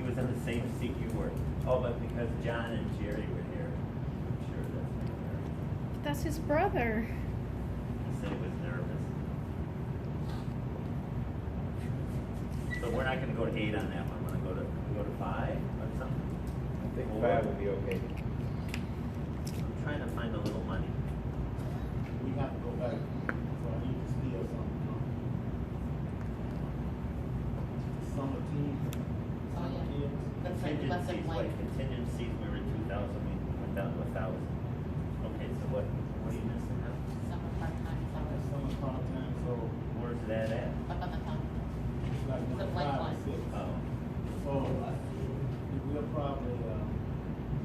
even think you were. Oh, but because John and Jerry were here, I'm sure that's not there. That's his brother. He said he was nervous. So we're not gonna go to eight on that one, we're gonna go to, go to five or something? I Four. think five would be okay. I'm trying to find a little money. We have to go back, so I need to steal something. huh? Summer team, Oh, summer yeah. kids. That's like less Contingencies, than like, like contingencies, we were two thousand, we went down to a thousand. Okay, so what, what are you missing now? summer part-time That's hours, summer part-time, so Where's that at? up on the top. it's like It's a one blank five line. or six. Oh, So I- we'll probably, uh,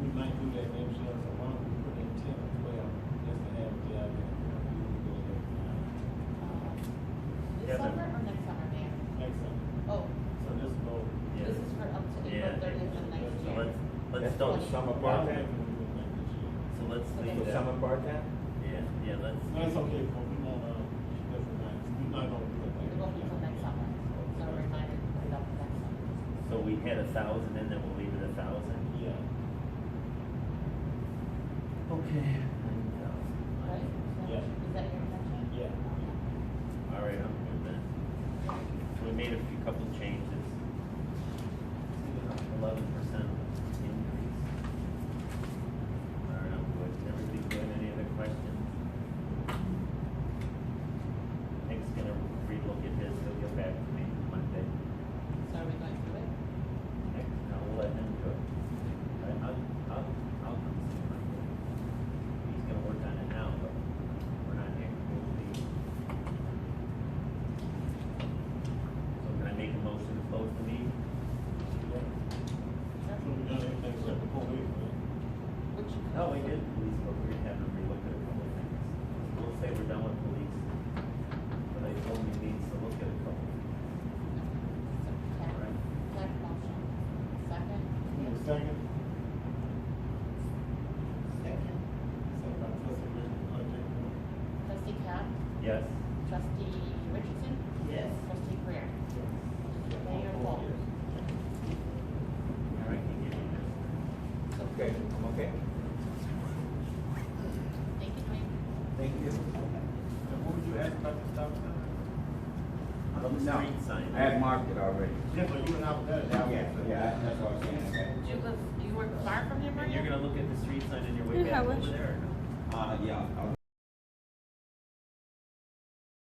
we might do that maybe she has a one, we put in ten or twelve, just to have the idea. We can go there. Uh, Yeah, This but- summer or next summer, Mayor? Next summer, Oh, so this go. yeah. this is for up to Yeah. April thirtieth of next So year. let's, let's That's don't, what so Summer Part-time, part-time, we do like this year. let's leave so that. summer part-time? Yeah, yeah, let's, No, it's okay, but we won't, uh, that's nice, we're not gonna do it. like It that. won't be till next summer, so we're reminded to put it up next summer. so we had a thousand and then we'll leave it a thousand? Yeah. Okay. Nine thousand. Right? Is that- Yeah. Is that your intention? Yeah. All right, I'm good then. So we made a few couple changes. Eleven percent increase. All right, I'm good. Everything good? Any other questions? Nick's gonna relook at this. He'll get back to me Monday. So are we going through it? Nick, I will let him do it. I, I'll, I'll, I'll come see him Monday. He's gonna work on it now, but we're not here. We'll be- So can I make a motion to close the meeting? So we done everything except the four weeks, right? Which. No, we did police, but we're gonna have to relook at a couple of things. We'll say we're done with police, but I told him he needs to look at a couple. Ted, Right. Ted motion, second. Need a second? Second. Second by trustee Richardson, uh, Jacob. Trustee Cap, Yes? trustee Richardson, Yes. trustee Greer. Mayor Four Paul. years. All right, you give me this. Okay, I'm okay. Thank you, Mike. Thank you. And what would you ask about the stop sign? How about the No, street sign? I had marked it already. Yeah, but you and I was there. that was- Yeah, yeah, that's what I was saying. Do you live, do you work far from here, And Maria? you're gonna look at the street sign on your way In back over Hellish. there? or no? Uh, yeah, I'll